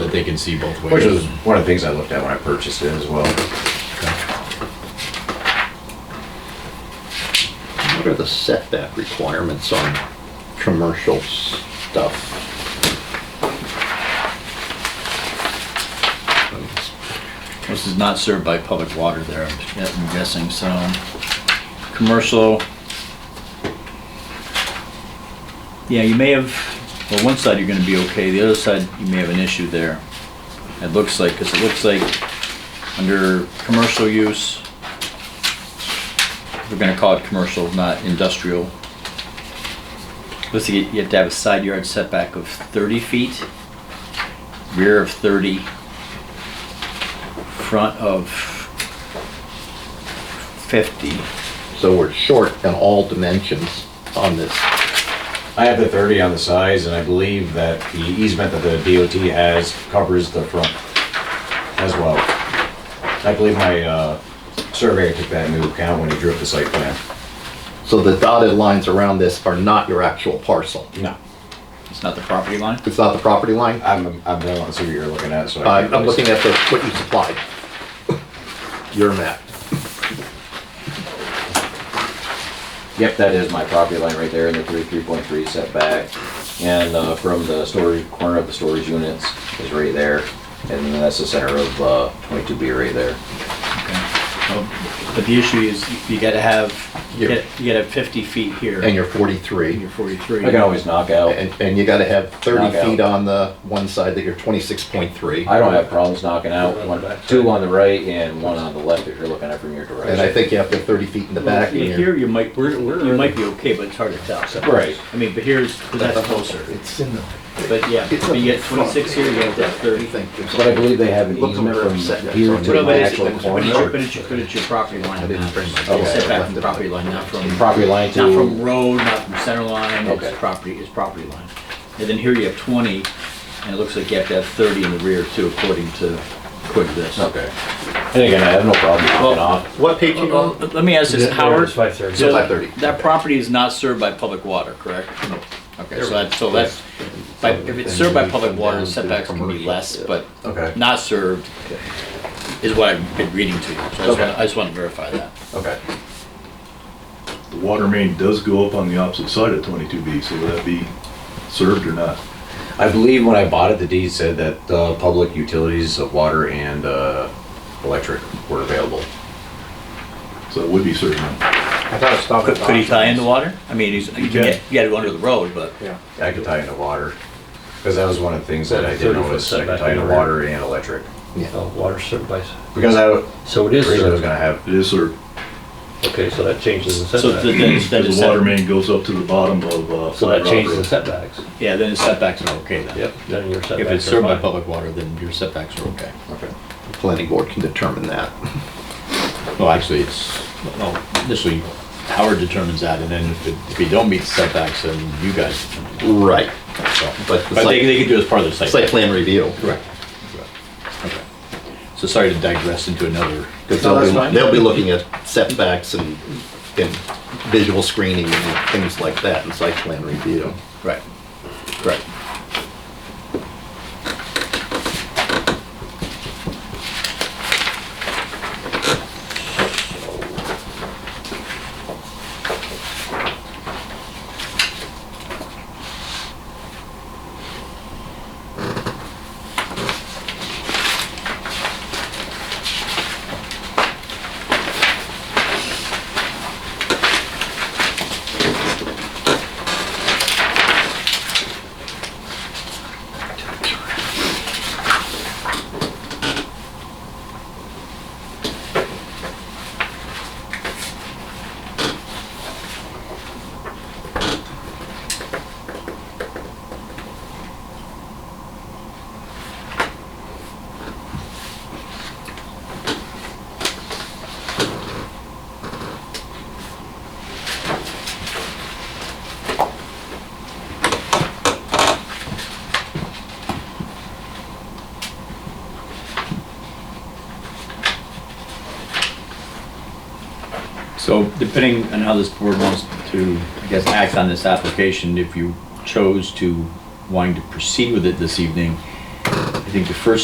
that they can see both ways. Which was one of the things I looked at when I purchased it as well. What are the setback requirements on commercial stuff? This is not served by public water there, I'm guessing, so, commercial. Yeah, you may have, well, one side you're gonna be okay, the other side, you may have an issue there. It looks like, cause it looks like, under commercial use, we're gonna call it commercial, not industrial. Looks like you you have to have a side yard setback of thirty feet, rear of thirty, front of 50. So we're short in all dimensions on this. I have the 30 on the size, and I believe that the easement that the DOT has covers the front as well. I believe my uh, surveyor took that into account when he drew up the site plan. So the dotted lines around this are not your actual parcel. No, It's not the property line? It's not the property line. I'm, I'm the one, see what you're Uh, looking at, so. I I'm can't I'm really see. looking at the, what you supplied. Your map. Yep, that is my property line right there in the three, three point three setback. And uh, from the storage, corner of the storage units is right there. And then that's the center of uh, twenty-two B right there. Oh, But the issue is you gotta have, you Here. gotta you gotta have 50 feet here. And you're and 43. you're 43. I can always knock out. And, and you gotta have 30 Knockout. feet on the one side that you're 26.3. I don't have problems knocking out one, two on the right and one on the left if you're looking at it from your direction. And I think you have to have 30 feet in the Well, back. and you're- Here you might, you might be okay, but it's hard to tell. so- Right. I mean, but here's, 'cause that's closer. It's in the. But yeah, but you get 26 here, you get that 30. But I believe they have an Look easement over from setbacks here on to the- But the it's- actual but it's your- But corner. it's your- but it's your property line. I didn't not- bring my- it's Setback Okay. from property line, not from. Property line Not from to, road, not from center line, Okay. it's property, it's property line. And then here you have 20, and it looks like you have to have 30 in the rear too, according to, according to this. okay. And again, I have no problem knocking Well- off. What page Well, well, Let me ask this, Howard, so Five thirty. Five thirty. that property is not served by public water, correct? No. Okay, so that's, so that's, by- if it's served by public water, the setbacks can be less, but Okay. not served is what I've been reading to you. So I just Okay. wanna- I just want to verify that. Okay. The water main does go up on the opposite side of 22B, so will that be served or not? I believe when I bought it, the deed said that uh, public utilities of water and uh, electric were available. So it would be served now. I thought it stopped. Could could he tie in the water? I mean, he's- you can can. get, you gotta go under the road, but. Yeah. I could tie into water, because that was one of the things that I did 30 foot notice, I could setback tie into in the rear. water and electric. Oh, Water served by, s- Because I so it is originally was served. gonna have, It is served, Okay, so that changes the So th- setback. then it's, then because it's the water set- main goes up to the bottom of, uh. So Flat that Rock changes the Road. setbacks. yeah, then the setbacks are okay then. Yep, then your setbacks are If it's served by fine. public water, then your setbacks are okay. okay. Planning board can determine that. Well, actually, it's, well, initially Howard determines that, and then if, it- if you don't meet setbacks, then you guys determine it. Right, So- but But they, the site, they could do it as part of the site. site plan review. Correct. Correct. Okay. So sorry to digress into another. 'Cause No, they'll that's be- fine. They'll be looking at setbacks and, and visual screening and things like that in site plan review. Right. Right. So depending on how this board wants to, I guess act on this application if you chose to wanting to proceed with it this evening. think the first